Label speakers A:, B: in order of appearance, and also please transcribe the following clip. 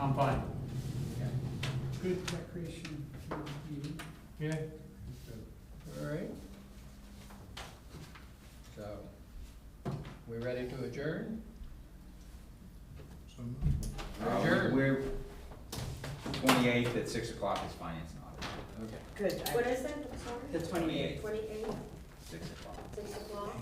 A: I'm fine.
B: Okay. Good recreation committee meeting.
A: Yeah.
B: All right. So, we ready to adjourn?
C: Uh,
B: Sure.
C: We're, twenty-eighth at six o'clock is finance and audit,
B: Okay.
D: Good, I-
E: What is it, I'm sorry?
D: the twenty-eighth.
E: Twenty-eight,
C: six o'clock.
E: six o'clock?